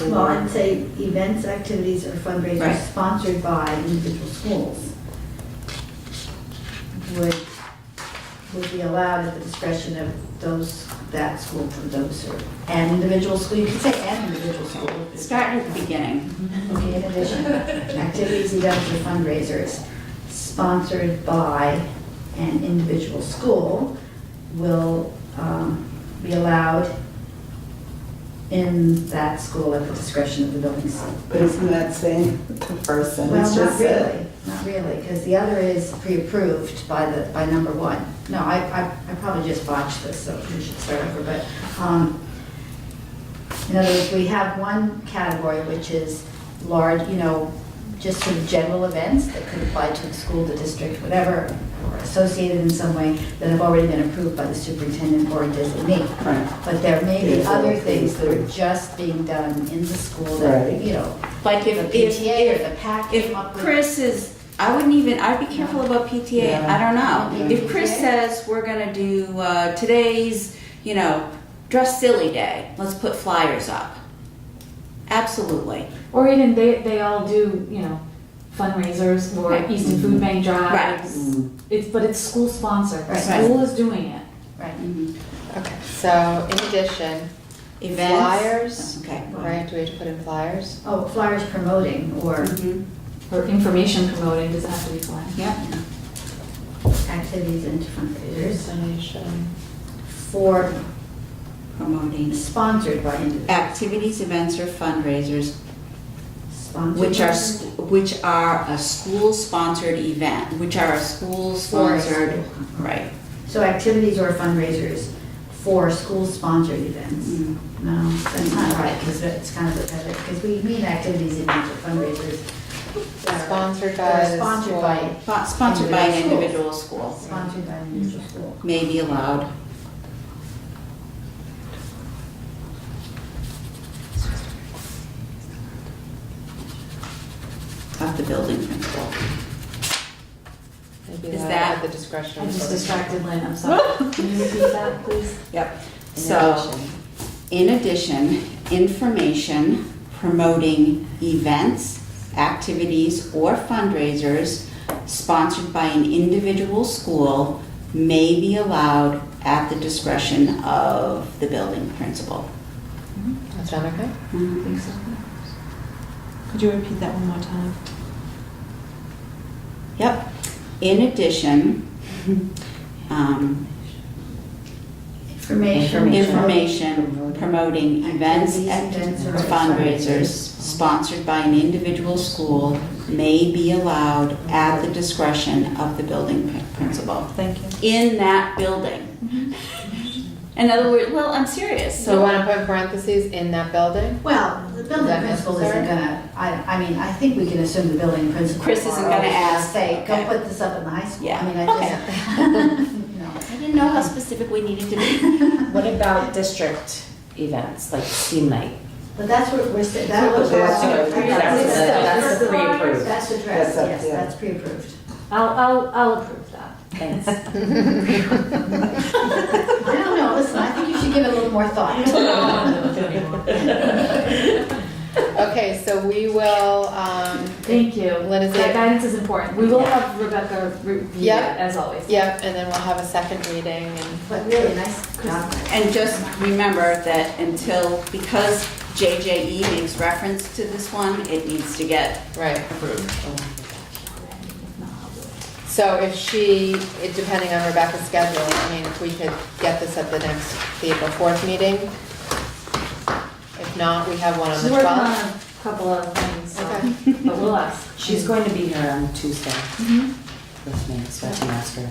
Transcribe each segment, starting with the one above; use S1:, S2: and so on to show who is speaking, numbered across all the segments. S1: Well,
S2: for,
S1: I'd say events, activities, or fundraisers
S2: Right.
S1: sponsored by individual schools would, would be allowed at the discretion of those, that school for those, or, and individual school, you could say and individual school.
S2: starting at the beginning.
S1: Okay, in addition, activities, events, or fundraisers sponsored by an individual school will um, be allowed in that school at the discretion of the building site.
S3: But isn't that saying what the first
S1: Well,
S3: sentence just
S1: not
S3: said?
S1: really, not really, because the other is pre-approved by the, by number one. No, I, I, I probably just botched this, so we should start over, but, um, in other words, we have one category, which is large, you know, just sort of general events that could apply to the school, the district, whatever, or associated in some way, that have already been approved by the superintendent or designee.
S3: Right.
S1: But there may be
S3: Yes,
S1: other
S3: it's
S1: things that are
S3: pre-approved.
S1: just being done in the school that,
S3: Right.
S1: you know,
S2: Like
S1: the
S2: if, if,
S1: PTA
S2: if
S1: or the PAC.
S2: If
S1: came up with-
S2: Chris is, I wouldn't even, I'd be careful about PTA, I don't know.
S1: Yeah.
S2: If Chris says, we're gonna do, uh, today's, you know, dress silly day, let's put flyers up. Absolutely,
S4: Or even they, they all do, you know, fundraisers or
S2: Right.
S4: Easton
S5: Mm-hmm.
S4: Food Bank
S2: Right.
S4: drives. It's, but it's school sponsored, the
S1: Right.
S4: school is doing it.
S1: Right.
S6: Okay, so in addition,
S2: events.
S6: Flyers.
S2: Okay.
S6: right, do we have to put in flyers?
S1: Oh, flyers promoting or
S2: Mhm.
S4: Or information promoting, does it have to be planned?
S2: Yeah.
S1: activities and fundraisers
S6: Donation.
S1: for
S2: Promoting
S1: sponsored by individuals.
S2: activities, events, or fundraisers
S1: Sponsored
S2: which are,
S1: by-
S2: s- which are a school-sponsored event, which are a school-sponsored, right.
S1: So activities or fundraisers for school-sponsored events.
S2: Mm.
S1: No, that's not right, because it's kind of repetitive, because we mean activities and fundraisers. that are-
S6: Sponsored by
S1: that are
S6: the
S1: Sponsored
S6: school.
S1: by,
S2: Spo- Sponsored by an
S1: Individual
S2: individual school,
S1: sponsored by an individual school.
S2: may be allowed. Of the building principal.
S6: Maybe
S2: Is that-
S6: At the discretion.
S4: I
S6: of
S4: just
S6: the-
S4: distracted Lynn, I'm sorry. Can you repeat that, please?
S2: Yep.
S6: In
S2: So,
S6: addition.
S2: in addition, information promoting events, activities, or fundraisers sponsored by an individual school may be allowed at the discretion of the building principal.
S6: That sound okay?
S4: I
S6: Mm-hmm.
S4: think so.
S5: Could you repeat that one more time?
S2: Yep. In addition, um,
S1: Information.
S2: information promoting events and
S1: Activities, events, or
S2: fundraisers sponsored by an individual school may be allowed at the discretion of the building pr- principal
S5: Thank you.
S2: in that building. In other words, well, I'm serious,
S6: So
S2: so,
S6: we
S2: um,
S6: want to put in parentheses in that building?
S1: Well, the building
S6: that
S1: principal
S6: necessary?
S1: isn't gonna, I, I mean, I think we can assume the building principal.
S2: Chris isn't
S1: tomorrow
S2: gonna
S1: is gonna
S2: ask,
S1: Say, go
S2: okay.
S1: put this up in the high school.
S2: Yeah,
S1: I mean,
S2: okay.
S1: I just, you know.
S2: I didn't know how specific we needed to be.
S7: What about district events, like team night?
S1: But that's what we're saying, that was.
S3: That's what we're-
S7: that's-
S1: That's
S7: that's
S1: the
S7: pre-approved.
S1: That's addressed,
S3: That's up,
S1: yes,
S3: yeah.
S1: that's pre-approved.
S4: I'll, I'll, I'll approve that.
S7: Thanks.
S1: I don't know, listen, I think you should give it a little more thought.
S6: Okay, so we will, um,
S4: Thank you.
S6: What is
S4: That
S6: it?
S4: guidance is important. We will have Rebecca review it,
S6: Yeah.
S4: as always.
S6: yep, and then we'll have a second reading and.
S1: But really, nice job.
S2: And just remember that until, because JJE makes reference to this one, it needs to get
S6: Right.
S2: approved.
S6: So if she, it- depending on Rebecca's schedule, I mean, if we could get this at the next, the April 4th meeting. If not, we have one on the
S4: She's working on
S6: 12th.
S4: a couple of things, so,
S6: Okay.
S4: but we'll ask.
S7: She's going to be here on Tuesday with me, so I can ask her.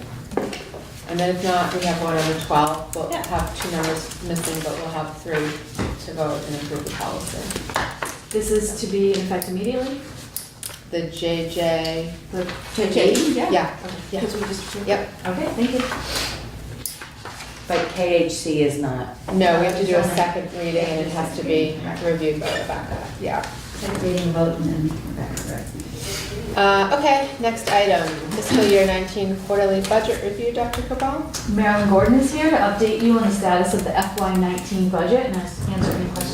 S6: And then if not, we have one on the 12th. We'll
S2: Yeah.
S6: have two numbers missing, but we'll have three to vote and approve the policy.
S4: This is to be in effect immediately?
S6: The JJ,
S4: The-
S2: JJE, yeah?
S6: yeah, okay, yeah,
S4: Because we just approved it?
S6: yep.
S4: Okay, thank you.
S7: But KHC is not,
S6: No, we have to do a second reading and it has to be reviewed by Rebecca, yeah.
S1: Second reading, vote, and then we're back, right?
S6: Uh, Okay, next item, fiscal year 19 quarterly budget review, Dr. Cabral?
S4: Marilyn Gordon is here to update you on the status of the FY nineteen budget and answer any questions